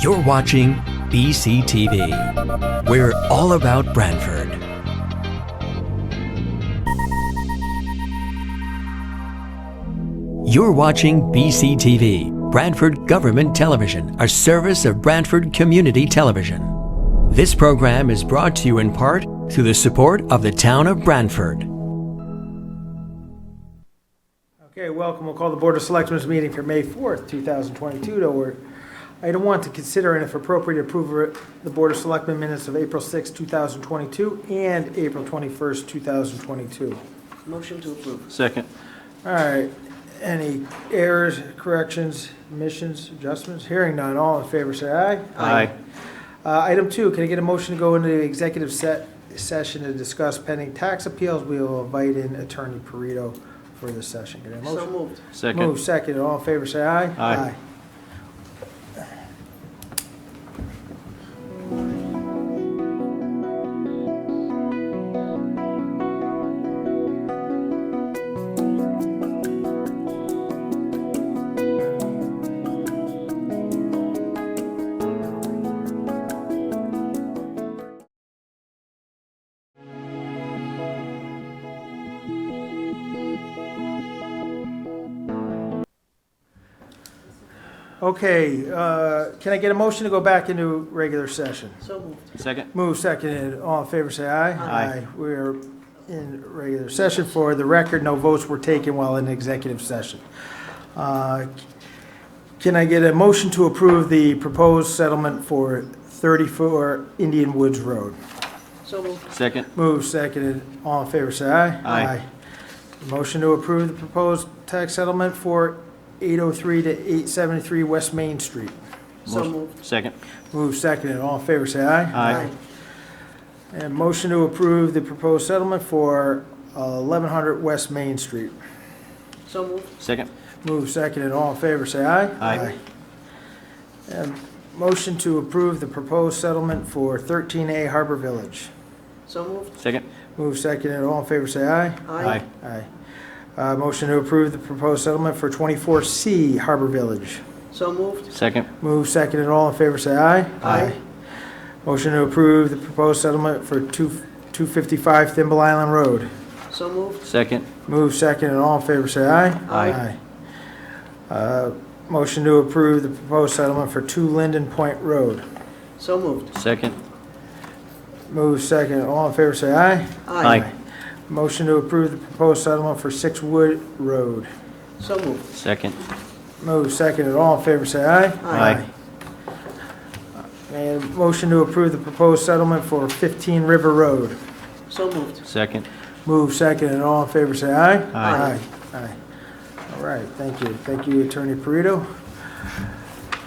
You're watching BCTV. We're all about Brantford. You're watching BCTV, Brantford Government Television, a service of Brantford Community Television. This program is brought to you in part through the support of the town of Brantford. Okay, welcome. We'll call the Board of Selectmen's meeting for May 4th, 2022 to order. Item one, to consider and if appropriate, approve the Board of Selectmen minutes of April 6, 2022 and April 21st, 2022. Motion to approve. Second. All right, any errors, corrections, omissions, adjustments? Hearing none, all in favor, say aye. Aye. Uh, Item two, can I get a motion to go into the executive set, session to discuss pending tax appeals? We will invite in Attorney Perito for this session. Get a motion? So moved. Second. Move second, all in favor, say aye. Aye. Aye. Okay, uh, can I get a motion to go back into regular session? So moved. Second. Move seconded, all in favor, say aye. Aye. We are in regular session. For the record, no votes were taken while in executive session. Uh, Can I get a motion to approve the proposed settlement for 34 Indian Woods Road? So moved. Second. Move seconded, all in favor, say aye. Aye. Motion to approve the proposed tax settlement for 803 to 873 West Main Street. So Motion- moved. Second. Move seconded, all in favor, say aye. Aye. And motion to approve the proposed settlement for 1100 West Main Street. So moved. Second. Move seconded, all in favor, say aye. Aye. And motion to approve the proposed settlement for 13A Harbor Village. So moved. Second. Move seconded, all in favor, say aye. Aye. Aye. Uh, Motion to approve the proposed settlement for 24C Harbor Village. So moved. Second. Move second and all in favor, say aye. Aye. Motion to approve the proposed settlement for 2 255 Thimble Island Road. So moved. Second. Move second and all in favor, say aye. Aye. Aye. Uh, Motion to approve the proposed settlement for 2 Linden Point Road. So moved. Second. Move second and all in favor, say aye. Aye. Motion to approve the proposed settlement for 6 Wood Road. So moved. Second. Move second and all in favor, say aye. Aye. And motion to approve the proposed settlement for 15 River Road. So moved. Second. Move second, and all in favor, say aye. Aye. Aye. Aye. All right, thank you. Thank you, Attorney Perito.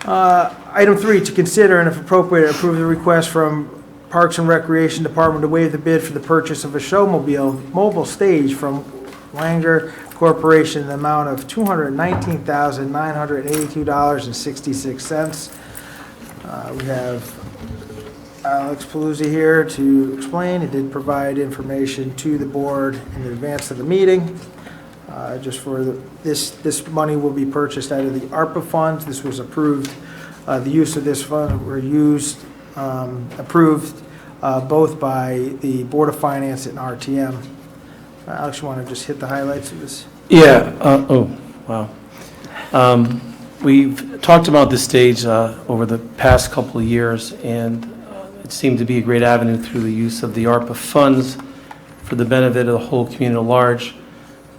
Uh, Item three, to consider and if appropriate, approve the request from Parks and Recreation Department to waive the bid for the purchase of a showmobile mobile stage from Langer Corporation in the amount of $219,982.66. Uh, We have Alex Paluzzi here to explain. He did provide information to the board in advance of the meeting. Uh, Just for the, this, this money will be purchased out of the ARPA funds. This was approved, uh, the use of this fund were used, um, approved uh, both by the Board of Finance and RTM. Uh, Alex, you want to just hit the highlights of this? Yeah, uh, oh, wow. Um, We've talked about this stage uh, over the past couple of years, and uh, it seemed to be a great avenue through the use of the ARPA funds for the benefit of the whole community at large.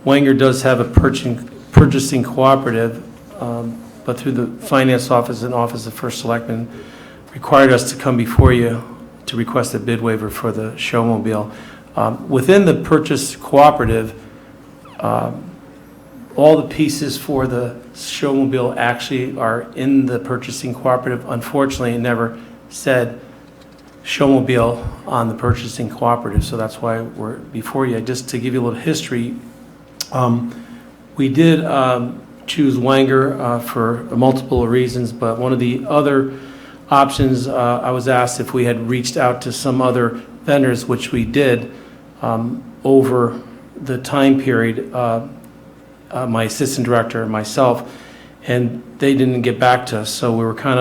Wanger does have a purchasing purchasing cooperative, um, but through the Finance Office and Office of First Selectman required us to come before you to request a bid waiver for the showmobile. Um, Within the purchase cooperative, all the pieces for the showmobile actually are in the purchasing cooperative. Unfortunately, it never said showmobile on the purchasing cooperative, so that's why we're before you. Just to give you a little history, um, we did um, choose Wanger uh, for multiple reasons, but one of the other options, uh, I was asked if we had reached out to some other vendors, which we did, um, over the time period. uh, uh, my assistant director and myself, and they didn't get back to us, so we were kind of.